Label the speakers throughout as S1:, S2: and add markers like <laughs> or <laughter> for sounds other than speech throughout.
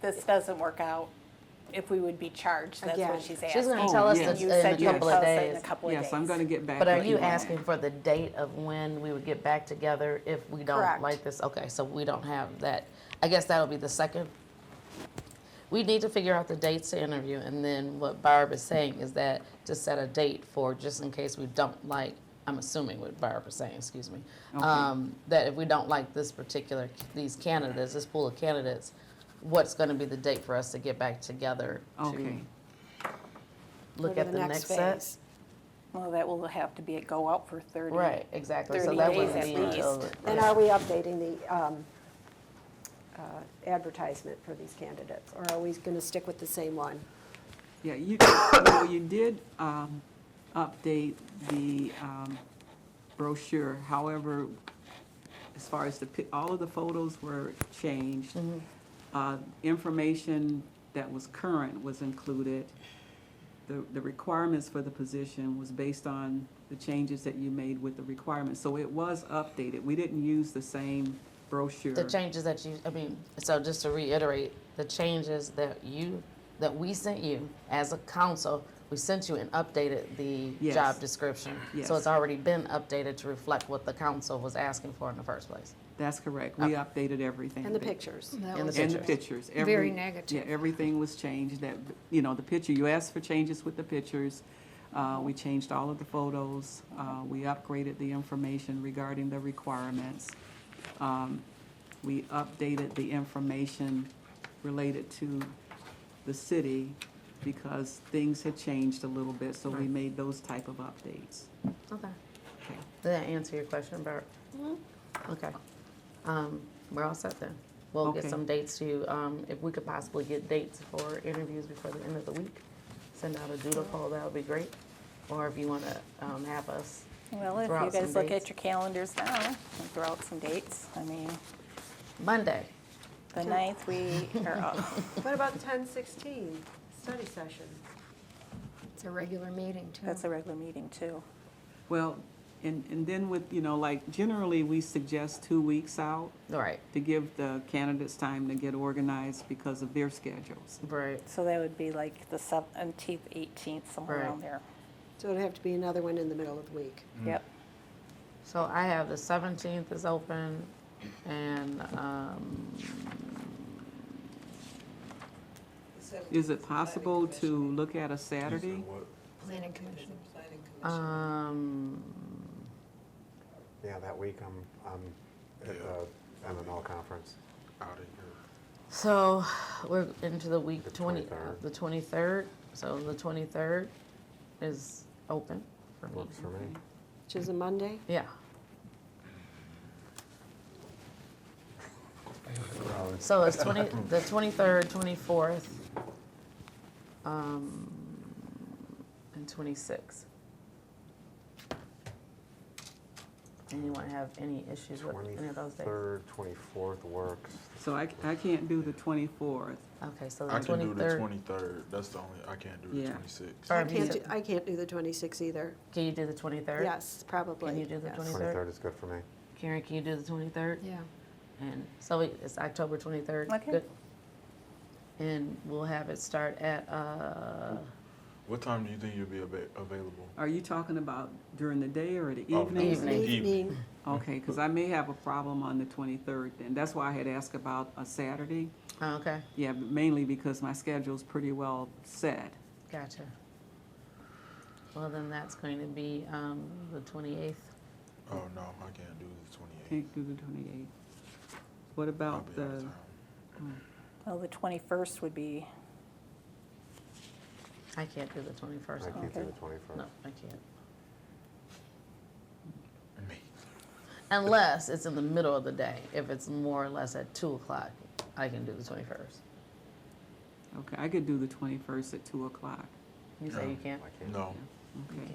S1: this doesn't work out, if we would be charged, that's
S2: Again,
S1: what she's asking.
S2: she's gonna
S3: tell us
S1: And
S3: this
S1: You
S3: in a
S1: said you would
S3: couple
S1: tell
S3: of
S1: us that in a
S3: days.
S1: couple of days.
S4: Oh, Yes, I'm gonna get back
S3: But are
S4: with
S3: you
S4: on that.
S3: asking for the date of when we would get back together if we don't
S1: Correct.
S3: like this? Okay, so we don't have that. I guess that'll be the second. We need to figure out the dates to interview, and then what Barb is saying is that to set a date for, just in case we don't like, I'm assuming what Barb is saying, excuse me, um, that if we don't like this particular, these candidates, this pool of candidates, what's gonna be the date for us to get back together to
S4: Okay,
S2: Go
S3: look
S2: to
S3: at the next set?
S2: phase.
S1: Well, that will have to be, go out for 30.
S3: Right, exactly. So
S1: 30
S3: that
S1: days
S3: wouldn't
S1: at
S3: be
S1: least.
S3: until-
S2: And are we updating the um, uh, advertisement for these candidates? Or are we going to stick with the same one?
S3: <coughs>
S4: yeah, you, well, you did um, update the um, brochure, however, as far as the, pic- all of the photos were changed.
S3: Mm-hmm.
S4: Uh, Information that was current was included. The, the requirements for the position was based on the changes that you made with the requirements. So it was updated. We didn't use the same brochure.
S3: The changes that you, I mean, so just to reiterate, the changes that you, that we sent you as a council, we sent you and updated the
S4: Yes.
S3: job description.
S4: Yes.
S3: So it's already been updated to reflect what the council was asking for in the first place.
S4: That's correct. We updated everything.
S2: And the pictures?
S5: That
S3: And the
S5: was-
S4: And the
S3: pictures.
S4: pictures.
S5: Very
S4: Every-
S5: negative.
S4: Yeah, everything was changed, that, you know, the picture, you asked for changes with the pictures. Uh, we changed all of the photos, uh, we upgraded the information regarding the requirements. Um, we updated the information related to the city because things had changed a little bit, so we made those type of updates.
S3: Okay. Did that answer your question, Bert?
S1: Mm-hmm.
S3: Okay. Um, we're all set then. We'll get
S4: Okay.
S3: some dates to, you, um, if we could possibly get dates for interviews before the end of the week. Send out a doodle poll, that would be great. Or if you wanna, um, have us
S1: Well, if
S3: Throw
S1: you
S3: out some
S1: guys look
S3: dates.
S1: at your calendars now and throw out some dates, I mean,
S3: Monday.
S1: the ninth, we are up.
S3: <laughs>
S2: What about 1016, study session?
S5: It's a regular meeting, too.
S1: That's a regular meeting too.
S4: Well, and, and then with, you know, like generally, we suggest two weeks out.
S3: All right,
S4: to give the candidates time to get organized because of their schedules.
S3: right.
S1: So that would be like the 17th, 18th, somewhere
S3: Right.
S1: around there.
S2: So it'd have to be another one in the middle of the week.
S4: Mm-hmm.
S1: Yep.
S3: So I have the seventeenth is open and, um,
S4: Is it possible to look at a Saturday?
S5: Planning commission.
S3: um,
S6: Yeah, that week I'm, I'm at the MML conference.
S7: out of your
S3: so we're into the week
S6: The
S3: twenty,
S6: 23rd.
S3: the twenty-third. So the twenty-third is open for me.
S6: Works for me.
S2: Which is a Monday?
S3: Yeah, so it's twenty, the twenty-third, twenty-fourth, um, and twenty-sixth. Anyone have any issues with any of those days?
S6: Twenty-third, twenty-fourth works.
S4: So I, I can't do the 24th.
S3: Okay, so the
S7: I can do the
S3: twenty-third,
S7: twenty-third, that's the only, I can't do the
S4: Yeah.
S7: twenty-sixth.
S3: Or
S2: I
S3: if you
S2: can't,
S3: said-
S2: do- I can't do the 26 either.
S3: can you do the twenty-third?
S2: Yes, probably.
S3: Can you do the
S2: yes.
S3: 23rd?
S6: Twenty-third is good for me.
S3: Karen, can you do the twenty-third?
S5: Yeah.
S3: And so it- it's October twenty-third?
S1: Okay.
S3: And we'll have it start at, uh,
S7: What time do you think you'll be ava- available?
S4: Are you talking about during the day or the
S7: Oh,
S4: evening?
S3: Evening.
S2: Evening,
S4: Okay, because I may have a problem on the 23rd, and that's why I had asked about a Saturday.
S3: oh, okay,
S4: Yeah, but mainly because my schedule's pretty well set.
S3: gotcha. Well, then that's going to be, um, the twenty-eighth.
S7: Oh, no, I can't do the twenty-eighth.
S4: Can't do the 28th. What
S7: I'll
S4: about
S7: be out of
S4: the, <laughs>
S7: town.
S1: Well, the 21st would be,
S3: I can't do the twenty-first.
S6: I can't do
S1: Okay.
S6: the twenty-first.
S3: No, I can't.
S7: Me.
S3: Unless it's in the middle of the day. If it's more or less at two o'clock, I can do the twenty-first.
S4: okay, I could do the 21st at 2 o'clock.
S3: You say you
S7: No.
S3: can't?
S6: I can't.
S7: No,
S4: Okay.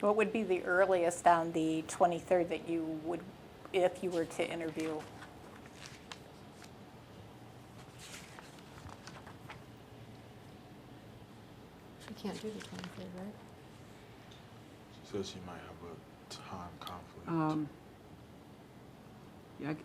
S1: what would be the earliest on the 23rd that you would, if you were to interview?
S5: She can't do the 23rd, right?
S7: she says she might have a time conflict.
S4: Um, Yeah, I c-